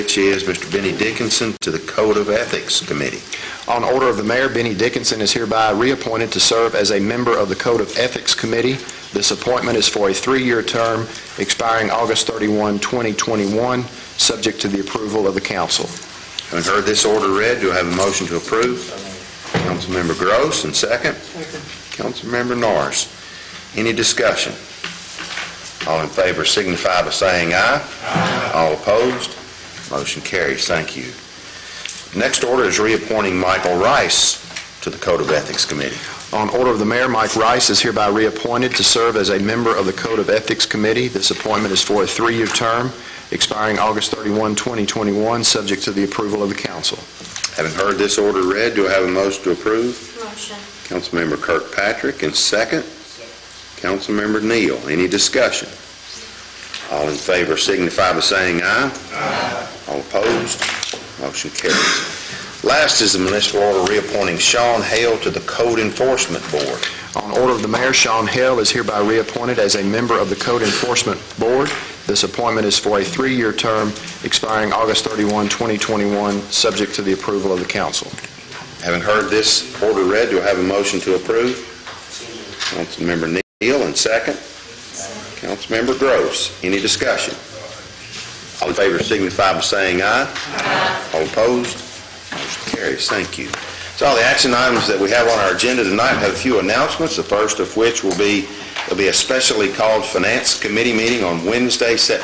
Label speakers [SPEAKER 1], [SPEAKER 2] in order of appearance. [SPEAKER 1] which is Mr. Benny Dickinson to the Code of Ethics Committee.
[SPEAKER 2] On order of the mayor, Benny Dickinson is hereby reappointed to serve as a member of the Code of Ethics Committee. This appointment is for a three-year term expiring August 31, 2021, subject to the approval of the council.
[SPEAKER 1] Having heard this order read, do I have a motion to approve? Councilmember Gross, and second? Councilmember Norris. Any discussion? All in favor signify by saying aye. Aye. All opposed? Motion carries. Thank you. Next order is reappointing Michael Rice to the Code of Ethics Committee.
[SPEAKER 2] On order of the mayor, Mike Rice is hereby reappointed to serve as a member of the Code of Ethics Committee. This appointment is for a three-year term expiring August 31, 2021, subject to the approval of the council.
[SPEAKER 1] Having heard this order read, do I have a motion to approve?
[SPEAKER 3] Motion.
[SPEAKER 1] Councilmember Kirkpatrick, and second? Councilmember Neal. Any discussion? All in favor signify by saying aye. Aye. All opposed? Motion carries. Last is the municipal order reappointing Sean Hale to the Code Enforcement Board.
[SPEAKER 2] On order of the mayor, Sean Hale is hereby reappointed as a member of the Code Enforcement Board. This appointment is for a three-year term expiring August 31, 2021, subject to the approval of the council.
[SPEAKER 1] Having heard this order read, do I have a motion to approve? Councilmember Neal, and second? Councilmember Gross. Any discussion? All in favor signify by saying aye. All opposed? Motion carries. Thank you. So all the action items that we have on our agenda tonight have a few announcements, the first of which will be, there'll be a specially called Finance Committee meeting on Wednesday, September